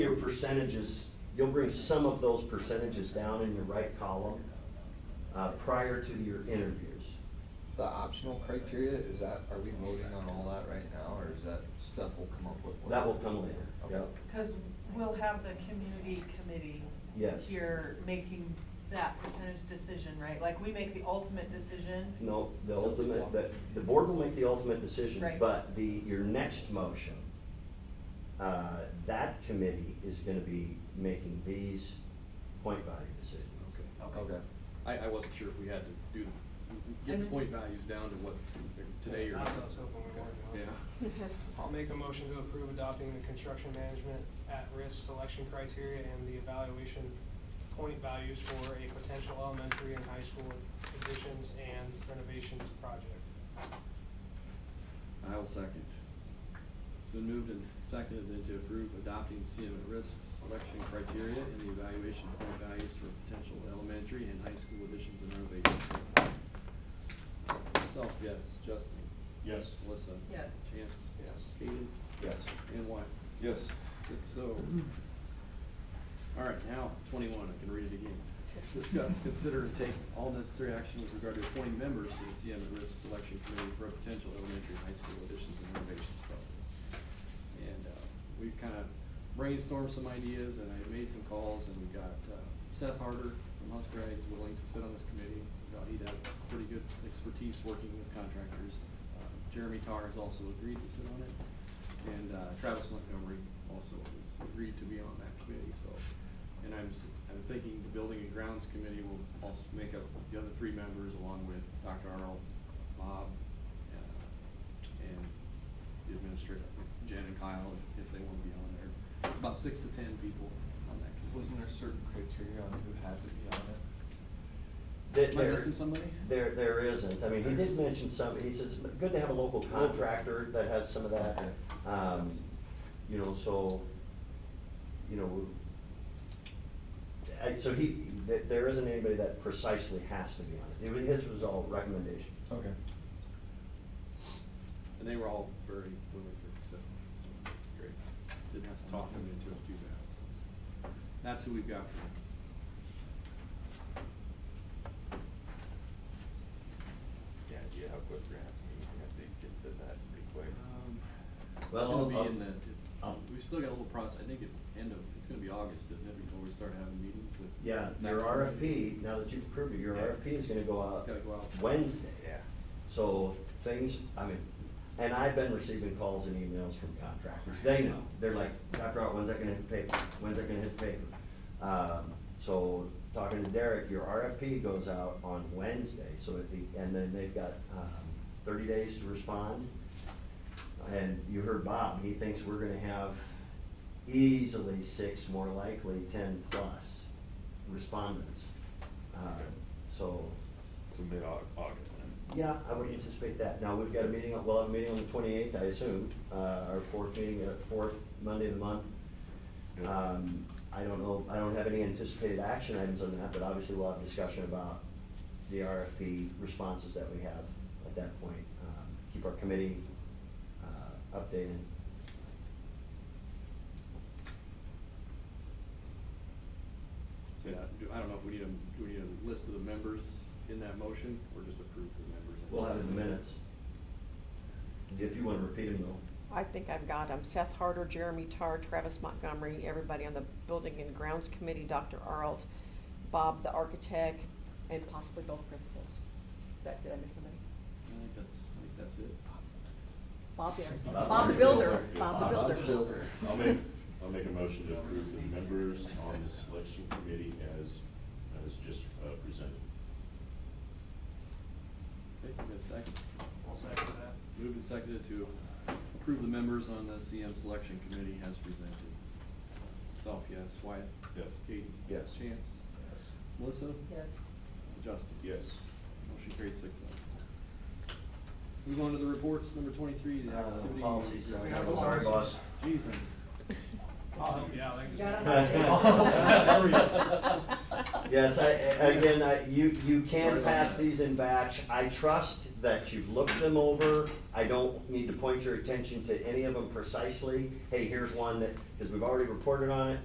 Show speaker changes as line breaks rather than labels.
your percentages, you'll bring some of those percentages down in your right column, uh, prior to your interviews.
The optional criteria, is that, are we voting on all that right now, or is that stuff we'll come up with? later?
That will come later, yep.
Because we'll have the community committee.
Yes.
Here making that percentage decision, right? Like, we make the ultimate decision.
No, the ultimate, the, the board will make the ultimate decision,
Right.
but the, your next motion, uh, that committee is gonna be making these point value decisions.
Okay.
Okay.
Oh. I, I wasn't sure if we had to do, get the point values down to what, today or.
I was hoping we weren't going.
Yeah.
I'll make a motion to approve adopting the construction management at-risk selection criteria and the evaluation point values for a potential elementary and high school additions and renovations project.
I will second. It's been moved and seconded then to approve adopting CM at risk selection criteria and the evaluation point values for potential elementary and high school additions and renovations. Myself, yes. Justin? Yes. Melissa?
Yes.
Chance?
Yes.
Kaden?
Yes.
And Wyatt?
Yes.
Six oh. All right, now twenty-one, I can read it again. Discuss, consider, and take all necessary action with regard to appointing members to the CM at risk selection committee for a potential elementary and high school additions and renovations project. And, uh, we've kind of brainstormed some ideas and I made some calls and we got uh, Seth Harder from Musgrave is willing to sit on this committee. Uh, He'd have pretty good expertise working with contractors. Uh, Jeremy Tarr has also agreed to sit on it. And uh, Travis Montgomery also has agreed to be on that committee, so. And I'm, s- I'm thinking the Building and Grounds Committee will also make up the other three members along with Dr. Arnold, Bob, uh, and the administrator, Jen and Kyle, if, if they want to be on there. About six to ten people on that committee.
Wasn't there certain criteria on who had to be on it?
There-
Am I
there-
missing somebody?
There, there isn't, I mean, he did mention some, he says, good to have a local contractor that has some of that, um, you know, so, you know, I, so he, th- there isn't anybody that precisely has to be on it, it was, his was all recommendations.
Okay.
And they were all very willing to accept, so, great. Didn't have to talk them into it too bad, so. That's who we've got.
Yeah, do you have quick grant meeting, I think it did that pretty quick.
Um, It's
Well,
gonna
I'll-
be
I'll-
in the,
I'll-
we still got a little process, I think at end of, it's gonna be August, isn't it, before we start having meetings with.
Yeah, your
That's-
RFP, now that you've approved it, your
Yeah.
RFP is gonna go out
It's gotta go out.
Wednesday.
Yeah.
So things, I mean, and I've been receiving calls and emails from contractors, they know, they're like, Dr. Art, when's that gonna hit the paper, when's that gonna hit the paper? Um, so, talking to Derek, your RFP goes out on Wednesday, so at the, and then they've got, um, thirty days to respond. And you heard Bob, he thinks we're gonna have easily six, more likely ten plus respondents. Um, So,
So mid-August then.
yeah, I would anticipate that. Now, we've got a meeting, we'll have a meeting on the twenty-eighth, I assume, uh, our fourth meeting, uh, fourth Monday of the month. Um, I don't know, I don't have any anticipated action items on that, but obviously we'll have discussion about the RFP responses that we have at that point. Um, Keep our committee, uh, updated.
So, yeah, do- I don't know if we need a, do we need a list of the members in that motion, or just approve the members?
We'll have it in the minutes. If you wanna repeat them though.
I think I've got them. Seth Harder, Jeremy Tarr, Travis Montgomery, everybody on the Building and Grounds Committee, Dr. Arlt, Bob, the architect, and possibly both principals. Is that, did I miss somebody?
I think that's, I think that's it.
Bob the architect.
Bob
Bob the
the
builder,
builder.
Bob
Bob
the
the
builder.
builder.
I'll make, I'll make a motion to approve the members on the selection committee as, as just uh, presented.
Okay, we got a second.
I'll second that.
Moved and seconded to approve the members on the CM selection committee as presented. Self, yes. Wyatt?
Yes.
Kaden?
Yes.
Chance?
Yes.
Melissa?
Yes.
Justin?
Yes.
Motion carried six oh. Move on to the reports, number twenty-three, the
Uh,
activity. Oh,
Policies.
We have those.
Boss.
Jeez, I'm-
Oh, yeah, like.
Got
Yes, I, I- again, I, you, you can pass these in batch. I trust that you've looked them over. I don't need to point your attention to any of them precisely. Hey, here's one that, because we've already reported on it,